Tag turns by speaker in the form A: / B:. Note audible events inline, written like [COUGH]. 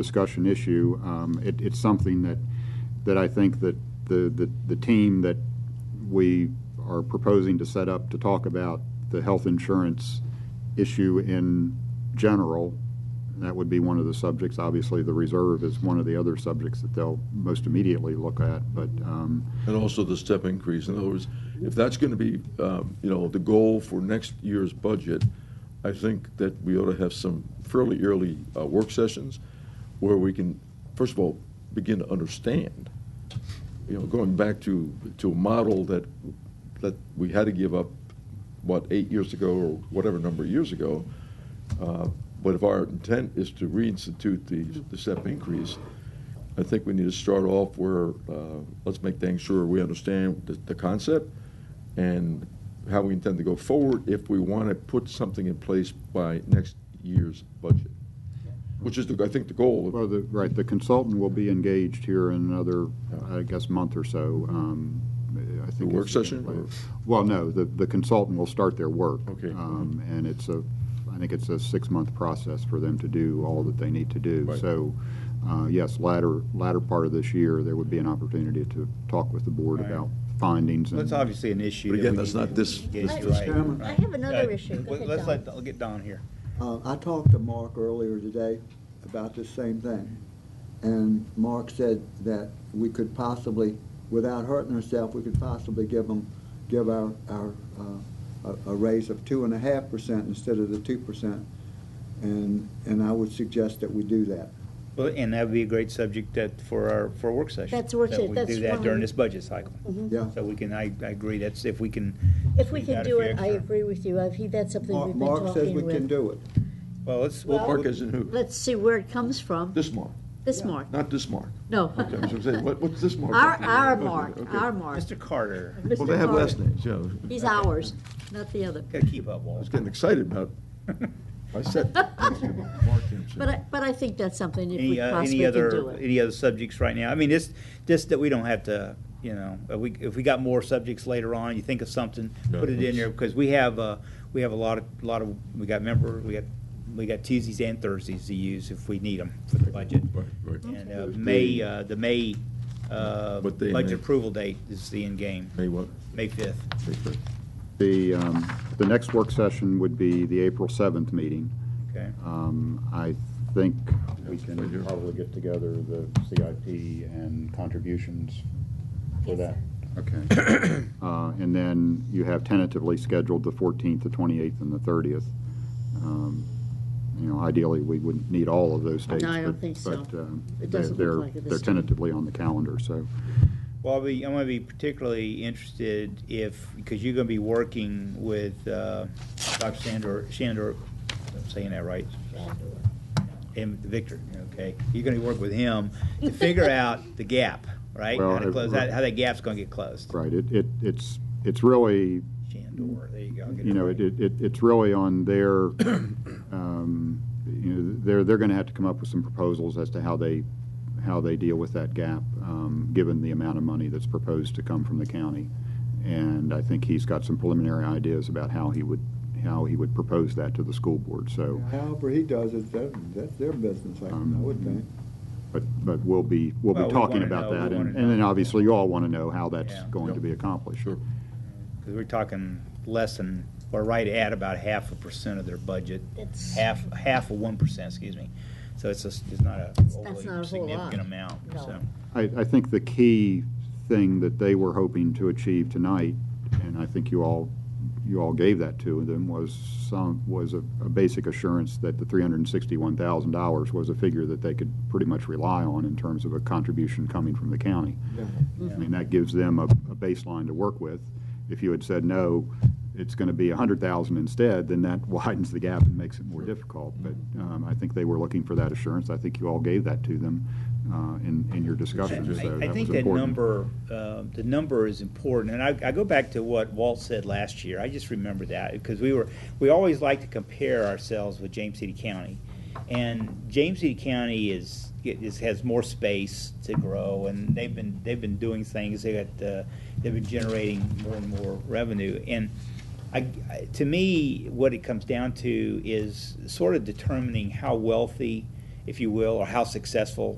A: discussion issue. Um, It, it's something that, that I think that the, the, the team that we are proposing to set up to talk about the health insurance issue in general, that would be one of the subjects. Obviously, the reserve is one of the other subjects that they'll most immediately look at, but, um,
B: And also the step increase. In other words, if that's going to be, um, you know, the goal for next year's budget, I think that we ought to have some fairly early uh, work sessions where we can, first of all, begin to understand, you know, going back to, to a model that, that we had to give up, what, eight years ago or whatever number of years ago. Uh, But if our intent is to reinstitute the, the step increase, I think we need to start off where, uh, let's make things sure we understand the, the concept and how we intend to go forward if we want to put something in place by next year's budget, which is, the- I think, the goal.
A: Well, the, right, the consultant will be engaged here in another, I guess, month or so. um, I think
B: work
A: it's-
B: session, or-
A: Well, no, the, the consultant will start their work.
B: Okay.
A: um, And it's a, I think it's a six-month process for them to do all that they need to do.
B: Right.
A: So, uh, yes, latter, latter part of this year, there would be an opportunity to talk with the board
C: Right.
A: about findings. and-
C: That's obviously an issue.
B: But
C: that
B: again,
C: we
B: that's
C: need
B: not
C: to
B: this-
C: get
B: this-
C: right.
D: Chairman? I have another
C: Yeah.
D: issue. Go
C: Let-
D: ahead,
C: Let's
D: Don.
C: let, I'll get Don here.
E: Uh, I talked to Mark earlier today about this same thing, and Mark said that we could possibly, without hurting ourselves, we could possibly give them, give our, our, uh, a- a raise of two and a half percent instead of the two percent. And, and I would suggest that we do that.
C: Well, and that'd be a great subject that, for our, for a work session.
D: That's work
C: that
D: session,
C: we
D: that's
C: do that
D: fine. Mm-hmm.
C: during this budget cycle.
E: Yeah.
C: So we can, I, I agree, that's if we can.
D: If we
C: squeeze
D: can
C: out a
D: do
C: few
D: it, I
C: extra-
D: agree with you. I think that's something
E: Mark
D: we've been
E: Mark says
D: talking
E: we can
D: with.
E: do it.
C: Well, let's, we'll-
D: Well-
B: Mark is in who?
D: Let's see where it comes from.
B: This Mark,
D: This Mark,
B: not this Mark.
D: no.
B: Okay, I was gonna say, what, what's this Mark?
D: Our,
B: Okay,
D: our
B: okay,
D: Mark,
B: okay.
D: our Mark.
C: Mr. Carter,
D: Mr.
B: Well, they have
D: Carter.
B: last names, yeah. I
D: He's ours, not the other.
C: gotta keep up, Walt.
B: was getting excited
D: [LAUGHS]
B: about, I said. Mark Dempsey.
D: But I, but I think that's something if
C: Any,
D: we
C: uh,
D: possibly
C: any
D: can do
C: other,
D: it.
C: any other subjects right now? I mean, this, this, that we don't have to, you know, if we, if we got more subjects later on, you think of something,
B: Yeah,
C: put it in
B: let's-
C: there, because we have, uh, we have a lot of, lot of, we got member, we got, we got Tuesdays and Thursdays to use if we need them for the budget.
B: Right, right.
C: And, uh, May, uh, the May, uh,
B: What day, May?
C: budget approval date is the end game,
B: May what?
C: May fifth.
B: May first.
A: The, um, the next work session would be the April 7th meeting.
C: Okay,
A: Um, I think we
B: right here.
A: can probably get together the CIP and contributions for that. Okay. [COUGHS] Uh, And then you have tentatively scheduled the 14th, the 28th, and the 30th. Um, You know, ideally, we wouldn't need all of those dates.
D: I don't
A: but-
D: think so.
A: But um,
D: It
A: they're-
D: doesn't look
A: they're-
D: like it this
A: They're
D: time.
A: tentatively on the calendar, so.
C: well, I'll be, I'm gonna be particularly interested if, because you're gonna be working with, uh, Dr. Sandor, Shandor, I'm saying that right? And Victor, okay, you're gonna be working with him to
D: [LAUGHS]
C: figure out the gap, right? How
A: Well,
C: to
A: it-
C: close, that- how that gap's gonna get closed.
A: Right, it, it it's, it's really
C: Shandor, there you go. I'll get
A: you know,
C: right.
A: it, it, it- it's really on their, um, you know, they're, they're gonna have to come up with some proposals as to how they, how they deal with that gap, um, given the amount of money that's proposed to come from the county. And I think he's got some preliminary ideas about how he would, how he would propose that to the school board, so.
E: However he does it, that, that's their business, I I would think.
A: But, but we'll be, we'll
C: Well,
A: be
C: we
A: talking
C: wanna
A: about
C: know, we
A: that. And
C: wanna
A: and then
C: know.
A: obviously you all wanna know how that's
C: Yeah.
A: going to
B: Yep.
A: be accomplished.
B: Sure.
C: Because we're talking less than, or right at about half a percent of their budget.
D: It's-
C: Half, half of one percent, excuse me. So it's just, it's not a
D: not a
C: overly
D: whole lot.
C: significant amount,
D: No.
C: so.
A: I, I think the key thing that they were hoping to achieve tonight, and I think you all, you all gave that to them, was some, was a, a basic assurance that the three hundred and sixty-one thousand dollars was a figure that they could pretty much rely on in terms of a contribution coming from the county. I mean, that gives them a, a baseline to work with. If you had said, no, it's gonna be a hundred thousand instead, then that [LAUGHS] widens the gap and makes it more difficult. But, um, I think they were looking for that assurance. I think you all gave that to them, uh, in, in your discussion, so that was
C: I- I
A: important.
C: think that number, uh, the number is important, and I, I go back to what Walt said last year, I just remember that, because we were, we always like to compare ourselves with James City County. And James City County is, is, has more space to grow, and they've been, they've been doing things, they got, uh, they've been generating more and more revenue. And I, I- to me, what it comes down to is sort of determining how wealthy if you will, or how successful